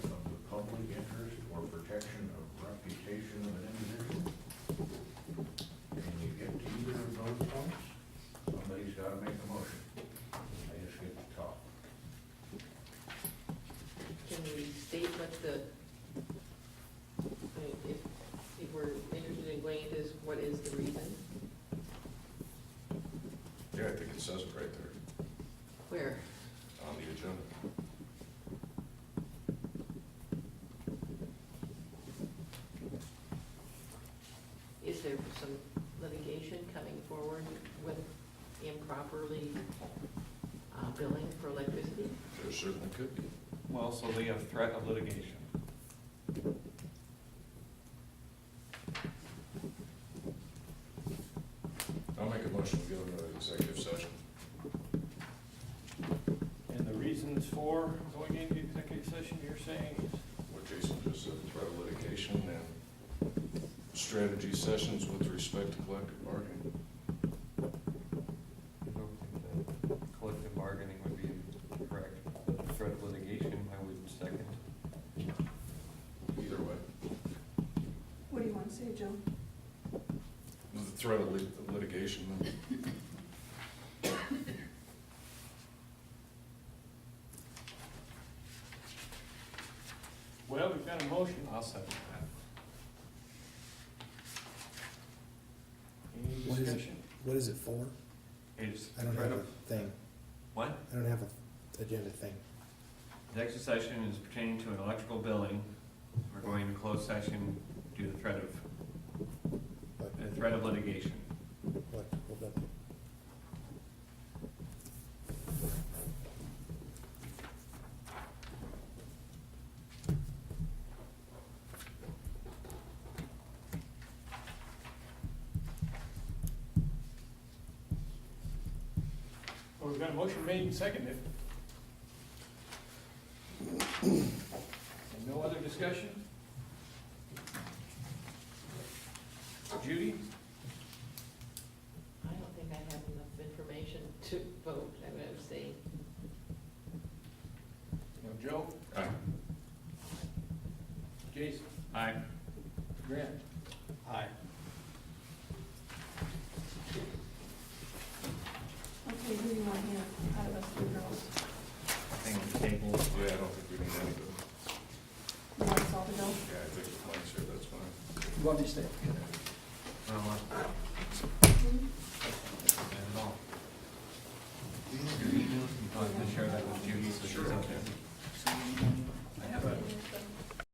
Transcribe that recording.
much the, I mean, if, if we're interested in going into this, what is the reason? Yeah, I think it says it right there Where? on the agenda. Is there some litigation coming forward with improperly uh, billing for electricity? There certainly could be. Well, so they have threat of litigation. I'll make a motion to go into executive session. And the reasons for going into executive session, you're saying is? What Jason just said, threat of litigation and strategy sessions with respect to collective bargaining. I don't think that Collective bargaining would be correct. Threat of litigation, I would second. Either way, What do you want to say, Joe? the threat of lit- litigation, Well, we've got a motion. I'll second that. Any What is it? discussion? What is it for? It's I don't threat have a of, thing. what? I don't have a agenda thing. The extra session is pertaining to an electrical billing. We're going into closed session due to the threat of, What, the threat of litigation. what, hold up. Well, we've got a motion made and seconded. And no other discussion? Judy? I don't think I have enough information to vote, I would say. No, Joe? Aye. Jason? Aye. Grant? Aye. Okay, who do you want here out of us three girls? I think the table, yeah, I don't think we need any of it. You want us all to go? Yeah, I think if Mike's here, that's fine. You want me to stay? well,